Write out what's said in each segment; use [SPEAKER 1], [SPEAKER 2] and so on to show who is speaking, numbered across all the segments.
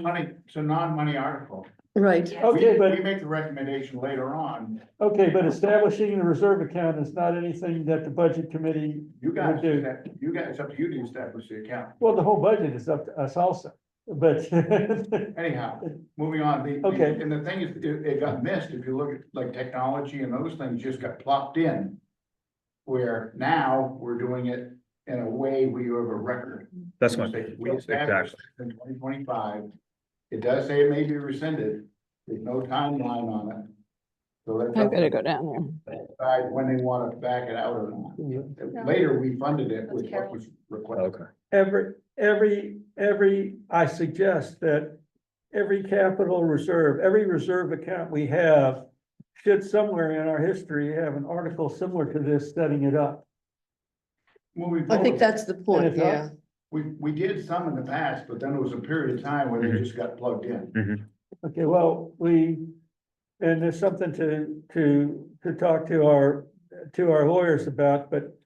[SPEAKER 1] money, it's a non-money article.
[SPEAKER 2] right,
[SPEAKER 3] Okay,
[SPEAKER 1] We- We
[SPEAKER 3] but,
[SPEAKER 1] make the recommendation later on,
[SPEAKER 3] okay, but establishing the reserve account is not anything that the budget committee
[SPEAKER 1] you
[SPEAKER 3] would
[SPEAKER 1] guys,
[SPEAKER 3] do.
[SPEAKER 1] you guys, it's up to you to establish the account.
[SPEAKER 3] Well, the whole budget is up to us also, but,
[SPEAKER 1] Anyhow, moving on, the,
[SPEAKER 3] Okay.
[SPEAKER 1] the- and the thing is, it, it got missed, if you look at like technology and those things just got plopped in. Where now we're doing it in a way we have a record.
[SPEAKER 4] That's
[SPEAKER 1] We
[SPEAKER 4] my,
[SPEAKER 1] say, We established in twenty twenty-five, it does say it may be rescinded, there's no timeline on it. So that's
[SPEAKER 5] I'm
[SPEAKER 1] up
[SPEAKER 5] gonna
[SPEAKER 1] to
[SPEAKER 5] go down there.
[SPEAKER 1] decide when they want to back it out or not. Later, we funded it with what was requested.
[SPEAKER 4] okay,
[SPEAKER 3] every, every, every, I suggest that every capital reserve, every reserve account we have should somewhere in our history have an article similar to this setting it up.
[SPEAKER 1] Moving
[SPEAKER 2] I think
[SPEAKER 1] forward.
[SPEAKER 2] that's the
[SPEAKER 3] And
[SPEAKER 2] point,
[SPEAKER 3] if not-
[SPEAKER 2] yeah.
[SPEAKER 1] We, we did some in the past, but then there was a period of time where they just got plugged in.
[SPEAKER 3] Okay, well, we, and there's something to, to, to talk to our, to our lawyers about, but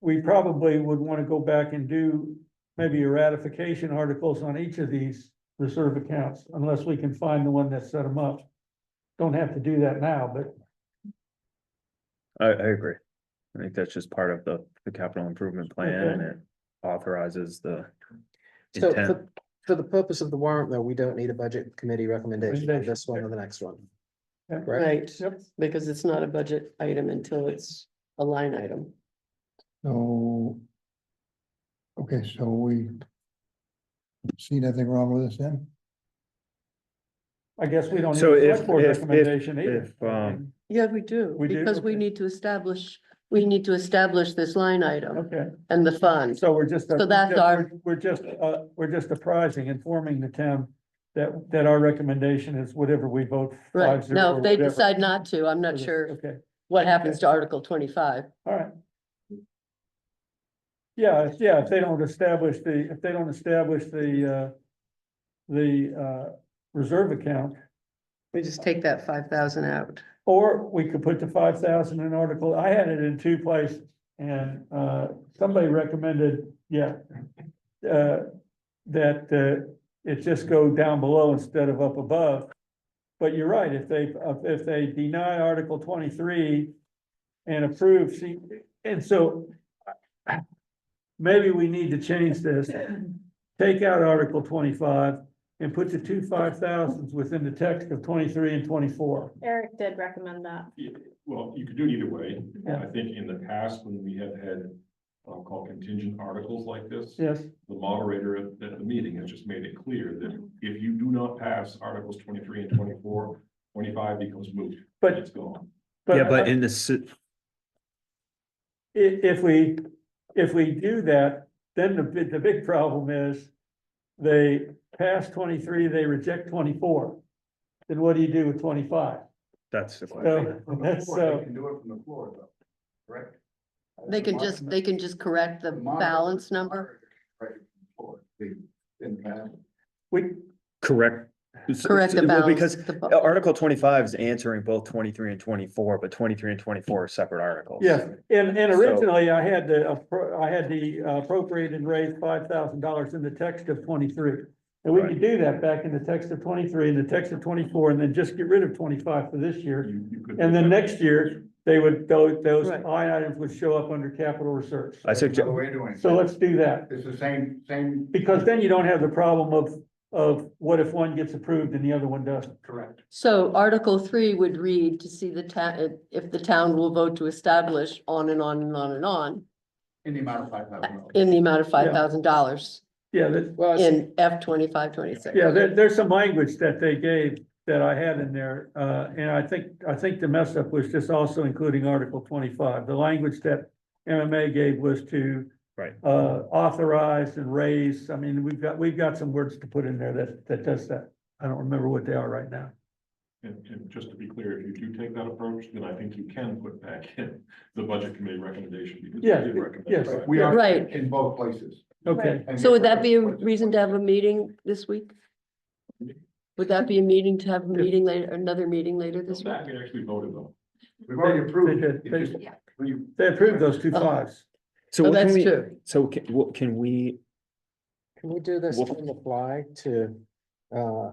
[SPEAKER 3] we probably would want to go back and do maybe ratification articles on each of these reserve accounts, unless we can find the one that set them up. Don't have to do that now, but
[SPEAKER 4] I, I agree. I think that's just part of the, the capital improvement plan and it authorizes the.
[SPEAKER 6] So
[SPEAKER 4] intent.
[SPEAKER 6] for, for the purpose of the warrant, though, we don't need a budget committee recommendation on
[SPEAKER 3] Recommendation,
[SPEAKER 6] this one or the next one.
[SPEAKER 3] Yeah.
[SPEAKER 6] Correct?
[SPEAKER 2] Right, because it's not a budget item until it's a line item.
[SPEAKER 7] So. Okay, so we. See nothing wrong with this then?
[SPEAKER 3] I guess we don't. need
[SPEAKER 4] So
[SPEAKER 3] a
[SPEAKER 4] if-
[SPEAKER 3] select board
[SPEAKER 4] if- if-
[SPEAKER 3] recommendation either.
[SPEAKER 4] if, um,
[SPEAKER 2] Yeah, we do,
[SPEAKER 3] We do?
[SPEAKER 2] because we
[SPEAKER 3] Okay.
[SPEAKER 2] need to establish, we need to establish this line item
[SPEAKER 3] Okay,
[SPEAKER 2] and the fund.
[SPEAKER 3] so we're just.
[SPEAKER 2] So that's our-
[SPEAKER 3] We're just, uh, we're just apprising, informing the town that, that our recommendation is whatever we vote.
[SPEAKER 2] Right,
[SPEAKER 3] five zero
[SPEAKER 2] now,
[SPEAKER 3] or
[SPEAKER 2] if they
[SPEAKER 3] whatever.
[SPEAKER 2] decide not to, I'm not sure
[SPEAKER 3] Okay,
[SPEAKER 2] what happens to Article twenty-five.
[SPEAKER 3] all right. Yeah, if- yeah, if they don't establish the, if they don't establish the, uh, the, uh, reserve account,
[SPEAKER 2] We just take that five thousand out.
[SPEAKER 3] Or we could put the five thousand in article, I had it in two places, and, uh, somebody recommended, yeah. Uh, that, uh, it just go down below instead of up above. But you're right, if they, uh, if they deny Article twenty-three and approve, see, and so. uh, Maybe we need to change this, take out Article twenty-five and put the two five thousands within the text of twenty-three and twenty-four.
[SPEAKER 8] Eric did recommend that.
[SPEAKER 9] Yeah, Well, you could do it either way.
[SPEAKER 3] Yeah.
[SPEAKER 9] I think in the past, when we have had, I'll call contingent articles like this, the
[SPEAKER 3] Yes,
[SPEAKER 9] moderator at, at the meeting has just made it clear that if you do not pass Articles twenty-three and twenty-four, twenty-five becomes moot.
[SPEAKER 3] But-
[SPEAKER 9] It's gone.
[SPEAKER 4] Yeah,
[SPEAKER 3] but i-
[SPEAKER 4] but in this,
[SPEAKER 3] if we, if we do that, then the, big- the big problem is they pass twenty-three, they reject twenty-four. Then what do you do with twenty-five?
[SPEAKER 4] that's the question.
[SPEAKER 3] So,
[SPEAKER 1] From the
[SPEAKER 3] that's,
[SPEAKER 1] floor,
[SPEAKER 3] uh,
[SPEAKER 1] They can do it from the floor, though, correct?
[SPEAKER 2] They can just, they can just correct the
[SPEAKER 1] Monitor-
[SPEAKER 2] balance number,
[SPEAKER 1] Right, from the floor, the, in the past.
[SPEAKER 3] we,
[SPEAKER 4] Correct. s-
[SPEAKER 2] correct the
[SPEAKER 4] s- well,
[SPEAKER 2] balance.
[SPEAKER 4] Because
[SPEAKER 2] the bu-
[SPEAKER 4] Article twenty-five is answering both twenty-three and twenty-four, but twenty-three and twenty-four are separate articles.
[SPEAKER 3] yeah, and, and
[SPEAKER 4] So-
[SPEAKER 3] originally I had the, appro- I had the appropriate and raise five thousand dollars in the text of twenty-three. And we could do that back in the text of twenty-three, in the text of twenty-four, and then just get rid of twenty-five for this year.
[SPEAKER 9] You- you could-
[SPEAKER 3] And then next year, they would, those, those
[SPEAKER 2] Right.
[SPEAKER 3] line items would show up under capital reserves.
[SPEAKER 4] I
[SPEAKER 1] That's
[SPEAKER 4] suggest,
[SPEAKER 1] another way of doing it.
[SPEAKER 3] So let's do that,
[SPEAKER 1] It's the same, same,
[SPEAKER 3] because then you don't have the problem of, of what if one gets approved and the other one doesn't?
[SPEAKER 1] correct.
[SPEAKER 2] So Article three would read to see the town, if the town will vote to establish on and on and on and on
[SPEAKER 1] In the amount of five thousand dollars.
[SPEAKER 2] in the amount of
[SPEAKER 3] Yeah.
[SPEAKER 2] five thousand dollars
[SPEAKER 3] Yeah, that,
[SPEAKER 6] Well, it's-
[SPEAKER 2] in F twenty-five, twenty-six.
[SPEAKER 3] yeah, there, there's some language that they gave that I had in there, uh, and I think, I think the mess up was just also including Article twenty-five. The language that MMA gave was to
[SPEAKER 4] Right.
[SPEAKER 3] uh, authorize and raise, I mean, we've got, we've got some words to put in there that, that does that. I don't remember what they are right now.
[SPEAKER 9] And, and just to be clear, if you do take that approach, then I think you can put back in the budget committee recommendation. because they
[SPEAKER 3] Yeah,
[SPEAKER 9] did recommend
[SPEAKER 3] yes.
[SPEAKER 9] five.
[SPEAKER 1] We are
[SPEAKER 2] Right.
[SPEAKER 1] in both places.
[SPEAKER 3] Okay,
[SPEAKER 1] And
[SPEAKER 2] So would that be a
[SPEAKER 1] you're correct.
[SPEAKER 2] reason to have a meeting this week? Would that be a meeting to have a meeting later, another meeting later this week?
[SPEAKER 9] That we actually voted on.
[SPEAKER 1] We've already approved it.
[SPEAKER 3] They- they-
[SPEAKER 1] It's just- we-
[SPEAKER 3] they approved those two fives.
[SPEAKER 4] so
[SPEAKER 2] Oh,
[SPEAKER 4] what can
[SPEAKER 2] that's
[SPEAKER 4] we,
[SPEAKER 2] true.
[SPEAKER 4] so can, what can we,
[SPEAKER 6] Can we do this
[SPEAKER 4] Well-
[SPEAKER 6] on the fly to uh,